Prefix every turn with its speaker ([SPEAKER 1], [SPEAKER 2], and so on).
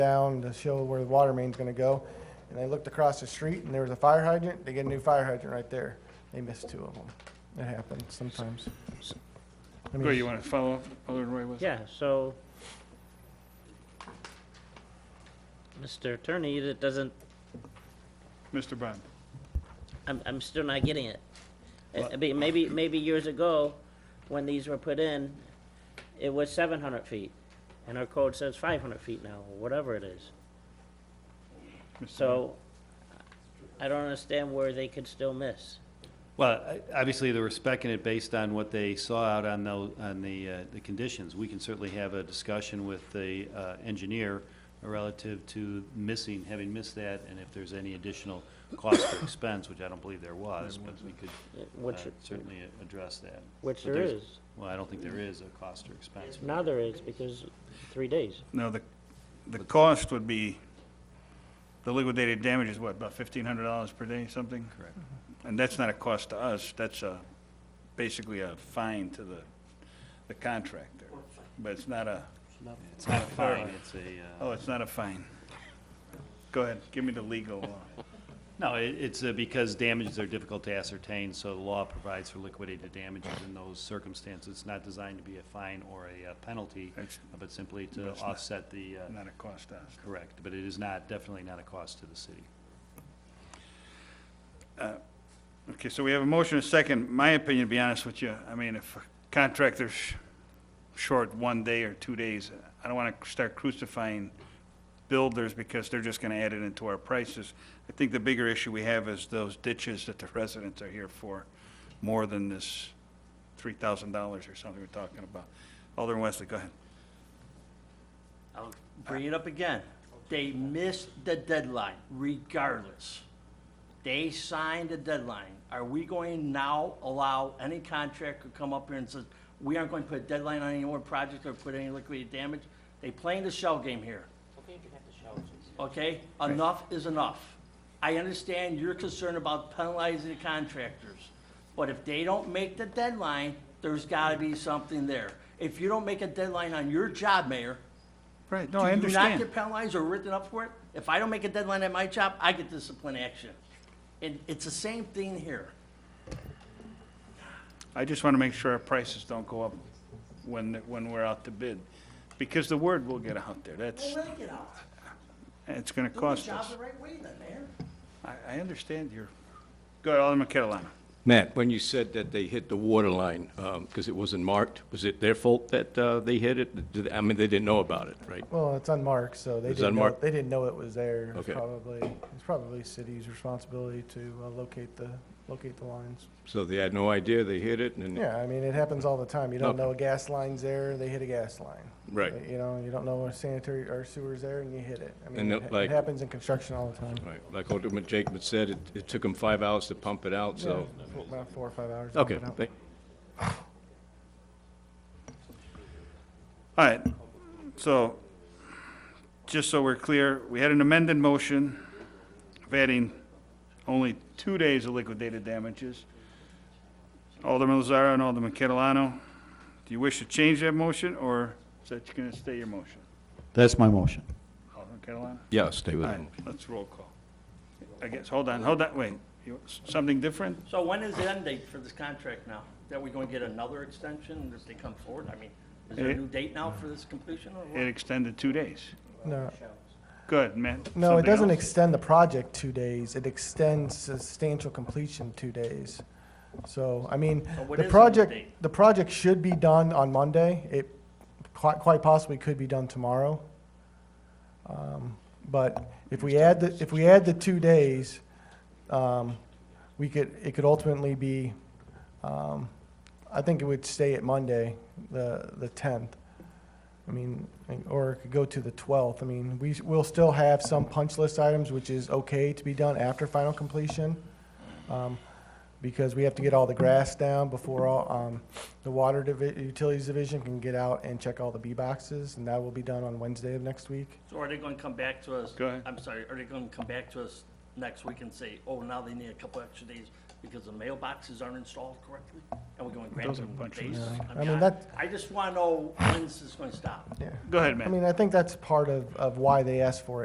[SPEAKER 1] down to show where the water main's gonna go. And they looked across the street and there was a fire hydrant. They get a new fire hydrant right there. They missed two of them. It happens sometimes. I mean,
[SPEAKER 2] Go, you want to follow up, Alderman Roy Wilson?
[SPEAKER 3] Yeah, so, Mr. Attorney, that doesn't,
[SPEAKER 2] Mr. Bond,
[SPEAKER 3] I'm, I'm still not getting it. I- I mean, maybe, maybe years ago, when these were put in, it was seven hundred feet, and our code says five hundred feet now, or whatever it is.
[SPEAKER 2] Mr. Bond.
[SPEAKER 3] So, I don't understand where they could still miss.
[SPEAKER 4] Well, I- obviously, they were spec'ing it based on what they saw out on the, on the, uh, the conditions. We can certainly have a discussion with the uh, engineer relative to missing, having missed that, and if there's any additional cost or expense, which I don't believe there was, but we could uh,
[SPEAKER 3] Which,
[SPEAKER 4] certainly a- address that.
[SPEAKER 3] which
[SPEAKER 4] But
[SPEAKER 3] there is.
[SPEAKER 4] there's- Well, I don't think there is a cost or expense.
[SPEAKER 3] Now there is, because three days.
[SPEAKER 2] No, the, the cost would be, the liquidated damage is what, about fifteen hundred dollars per day, something? Mm-hmm.
[SPEAKER 4] Correct.
[SPEAKER 2] And that's not a cost to us, that's a, basically a fine to the, the contractor. But it's not a,
[SPEAKER 4] It's not a fine, it's a, uh,
[SPEAKER 2] oh, it's not a fine. Go ahead, give me the legal, uh,
[SPEAKER 4] no, it- it's uh, because damages are difficult to ascertain, so the law provides for liquidated damages in those circumstances. It's not designed to be a fine or a uh, penalty.
[SPEAKER 2] it's
[SPEAKER 4] but simply
[SPEAKER 2] No,
[SPEAKER 4] to
[SPEAKER 2] it's not.
[SPEAKER 4] offset the, uh,
[SPEAKER 2] not a cost to us.
[SPEAKER 4] correct, but it is not, definitely not a cost to the city.
[SPEAKER 2] Okay, so we have a motion and a second. My opinion, to be honest with you, I mean, if a contractor's sh- short one day or two days, I don't want to start crucifying builders because they're just going to add it into our prices. I think the bigger issue we have is those ditches that the residents are here for, more than this three thousand dollars or something we're talking about. Alderman Wesley, go ahead.
[SPEAKER 5] I'll bring it up again. They missed the deadline regardless. They signed the deadline. Are we going now allow any contractor to come up here and says, we aren't going to put a deadline on any more project or put any liquidated damage? They playing the shell game here, okay? Enough is enough. I understand your concern about penalizing the contractors, but if they don't make the deadline, there's gotta be something there. If you don't make a deadline on your job, Mayor,
[SPEAKER 2] Right, no,
[SPEAKER 5] do
[SPEAKER 2] I
[SPEAKER 5] you not
[SPEAKER 2] understand.
[SPEAKER 5] get penalized or written up for it? If I don't make a deadline at my job, I get discipline action. And it's the same thing here.
[SPEAKER 2] I just want to make sure our prices don't go up when, when we're out to bid, because the word will get out there. That's,
[SPEAKER 5] Well, let it get out.
[SPEAKER 2] it's going to
[SPEAKER 5] Do your
[SPEAKER 2] cost
[SPEAKER 5] job
[SPEAKER 2] us.
[SPEAKER 5] the right way then, Mayor.
[SPEAKER 2] I, I understand your, go ahead, Alderman Catalano.
[SPEAKER 6] Matt, when you said that they hit the water line, because it wasn't marked, was it their fault that uh, they hit it? Did- I mean, they didn't know about it, right?
[SPEAKER 1] Well, it's unmarked, so they
[SPEAKER 6] It's
[SPEAKER 1] didn't know,
[SPEAKER 6] unmarked?
[SPEAKER 1] they didn't know it was there. It's
[SPEAKER 6] Okay.
[SPEAKER 1] Probably, it's probably city's responsibility to uh, locate the, locate the lines.
[SPEAKER 6] So they had no idea they hit it, and,
[SPEAKER 1] Yeah, I mean, it happens all the time. You don't
[SPEAKER 6] Okay.
[SPEAKER 1] know a gas line's there, they hit a gas line.
[SPEAKER 6] Right.
[SPEAKER 1] You know, you don't know a sanitary or sewer's there and you hit it. I mean,
[SPEAKER 6] And
[SPEAKER 1] it
[SPEAKER 6] it,
[SPEAKER 1] ha- it
[SPEAKER 6] like-
[SPEAKER 1] happens in construction all the time.
[SPEAKER 6] right, like Alderman Jacob said, it, it took them five hours to pump it out, so.
[SPEAKER 1] Yeah, four- About four or five hours. to
[SPEAKER 6] Okay,
[SPEAKER 1] pump it out.
[SPEAKER 6] thank-
[SPEAKER 2] All right, so, just so we're clear, we had an amended motion of adding only two days of liquidated damages. Alderman Lazara and Alderman Catalano, do you wish to change that motion, or is that going to stay your motion?
[SPEAKER 7] That's my motion.
[SPEAKER 2] Alderman Catalano?
[SPEAKER 6] yeah, stay
[SPEAKER 2] All
[SPEAKER 6] with
[SPEAKER 2] right,
[SPEAKER 6] them.
[SPEAKER 2] let's roll call. I guess, hold on, hold on, wait, You- something different?
[SPEAKER 5] So when is the end date for this contract now? That we are gonna get another extension if they come forward? I mean, is there a
[SPEAKER 2] It-
[SPEAKER 5] new date now for this completion or
[SPEAKER 2] It
[SPEAKER 5] what?
[SPEAKER 2] extended two days.
[SPEAKER 1] No,
[SPEAKER 2] Good, man.
[SPEAKER 1] no, it doesn't extend the project two days. It extends substantial completion two days. So, I mean,
[SPEAKER 5] So what
[SPEAKER 1] the
[SPEAKER 5] is the
[SPEAKER 1] project,
[SPEAKER 5] date?
[SPEAKER 1] the project should be done on Monday. It quite, quite possibly could be done tomorrow. Um, But if we add, the if we add the two days, um, we could, it could ultimately be, um, I think it would stay at Monday, the, the tenth. I mean, or it could go to the twelfth. I mean, we, we'll still have some punch list items, which is okay to be done after final completion. um, Because we have to get all the grass down before all, um, the water divi- utilities division can get out and check all the B boxes, and that will be done on Wednesday of next week.
[SPEAKER 5] So are they gonna come back to us?
[SPEAKER 2] Go ahead.
[SPEAKER 5] I'm sorry, are they gonna come back to us next week and say, oh, now they need a couple extra days because the mailboxes aren't installed correctly? And we're going to grant
[SPEAKER 2] Those are
[SPEAKER 5] them
[SPEAKER 2] bunch of
[SPEAKER 5] days?
[SPEAKER 2] Yeah.
[SPEAKER 1] I mean, that-
[SPEAKER 5] I just want to know when this is going to stop.
[SPEAKER 1] yeah.
[SPEAKER 2] Go ahead,
[SPEAKER 1] I
[SPEAKER 2] Matt.
[SPEAKER 1] mean, I think that's part of, of why they asked for it.